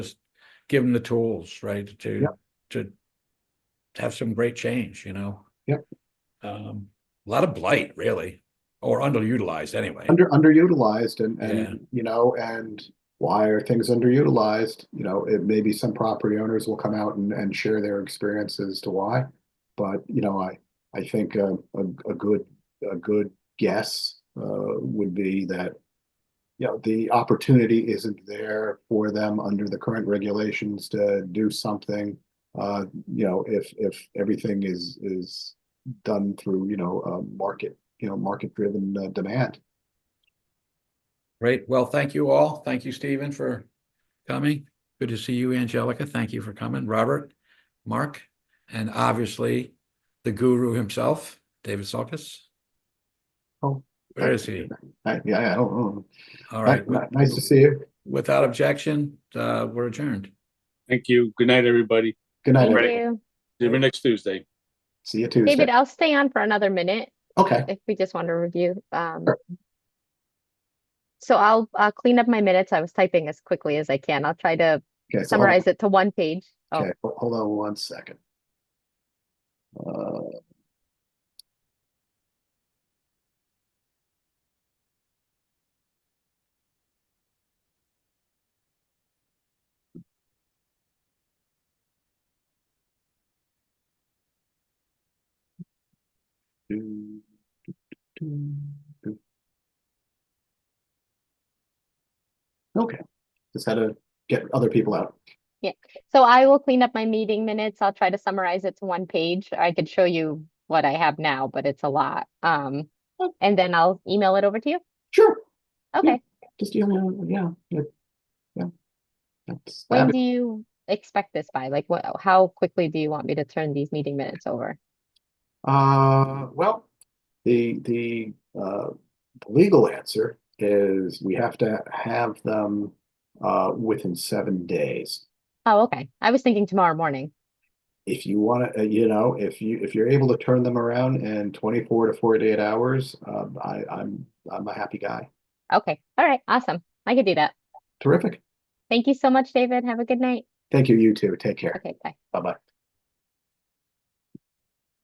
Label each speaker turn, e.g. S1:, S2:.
S1: give them the tools, right, to,
S2: Yep.
S1: to have some great change, you know?
S2: Yep.
S1: Um, a lot of blight, really, or underutilized anyway.
S2: under underutilized and and
S1: Yeah.
S2: you know and why are things underutilized you know it maybe some property owners will come out and, and share their experience as to why but you know i i think a, a, a good a good guess uh, would be that you know the opportunity isn't there for them under the current regulations to do something uh, you know if if everything is is done through you know uh, market you know market driven uh, demand
S1: Great. Well, thank you all. Thank you, Stephen, for coming. Good to see you, Angelica. Thank you for coming. Robert, Mark, and obviously the guru himself, David Salkis.
S2: Oh.
S1: Where is he?
S2: I, yeah, I don't know.
S1: All
S2: Ni-
S1: right.
S2: ni- Nice to see you.
S1: Without objection, uh, we're adjourned.
S3: Thank you. Good night, everybody.
S2: Good night.
S3: All
S4: Thank
S3: right.
S2: everybody.
S4: you.
S3: See you next Tuesday.
S2: See you Tuesday.
S4: David, I'll stay on for another minute
S2: Okay.
S4: if we just want to review. Um,
S2: Sure.
S4: so I'll uh, clean up my minutes. I was typing as quickly as I can. I'll try to
S2: Okay. so hold-
S4: summarize it to one page. Oh,
S2: Okay, ho- hold on one second. Uh, do, do, do, do. Okay, just had to get other people out.
S4: so I will clean up my meeting minutes. I'll try to summarize it to one page. I could show you what I have now, but it's a lot. Um,
S2: Oh.
S4: and then I'll email it over to you.
S2: Sure.
S4: Okay.
S2: just you know, yeah, yeah, yeah. That's
S4: When
S2: that.
S4: do you expect this by? Like, what, how quickly do you want me to turn these meeting minutes over?
S2: Uh, well, the the uh, the legal answer is we have to have them uh, within seven days.
S4: Oh, okay. I was thinking tomorrow morning.
S2: If you want to, you know, if you if you're able to turn them around in 24 to 48 hours, um, I, I'm I'm a happy guy.
S4: Okay. All right. Awesome. I could do that.
S2: Terrific.
S4: Thank you so much, David. Have a good night.
S2: Thank you. You too. Take care.
S4: Okay, bye.
S2: Bye bye.